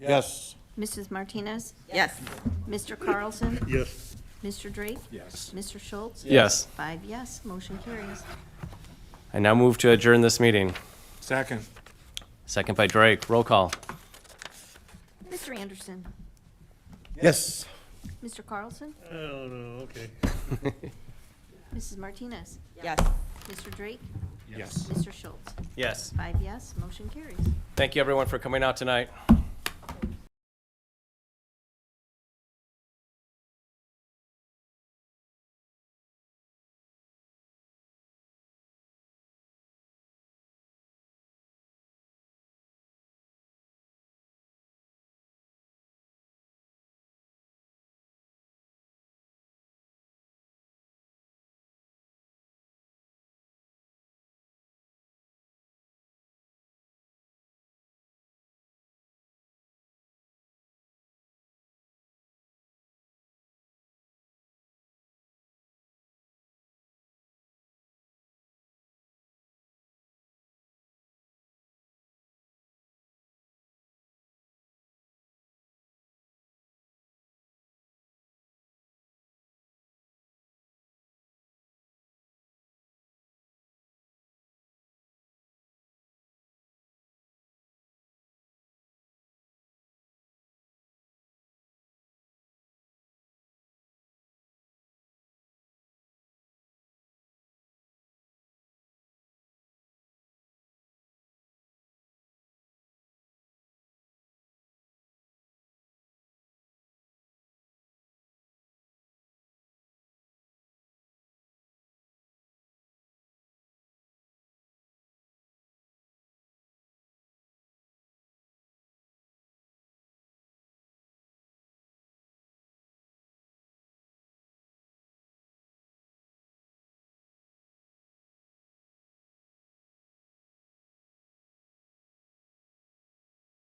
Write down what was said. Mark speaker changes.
Speaker 1: Yes.
Speaker 2: Mrs. Martinez?
Speaker 3: Yes.
Speaker 2: Mr. Carlson?
Speaker 4: Yes.
Speaker 2: Mr. Drake?
Speaker 4: Yes.
Speaker 2: Mr. Schultz?
Speaker 5: Yes.
Speaker 2: Five yes, motion carries.
Speaker 5: I now move to adjourn this meeting.
Speaker 4: Second.
Speaker 5: Second by Drake. Roll call.
Speaker 2: Mr. Anderson?
Speaker 1: Yes.
Speaker 2: Mr. Carlson?
Speaker 4: Oh, no, okay.
Speaker 2: Mrs. Martinez?
Speaker 3: Yes.
Speaker 2: Mr. Drake?
Speaker 4: Yes.
Speaker 2: Mr. Schultz?
Speaker 5: Yes.
Speaker 2: Five yes, motion carries.
Speaker 5: Thank you, everyone, for coming out tonight.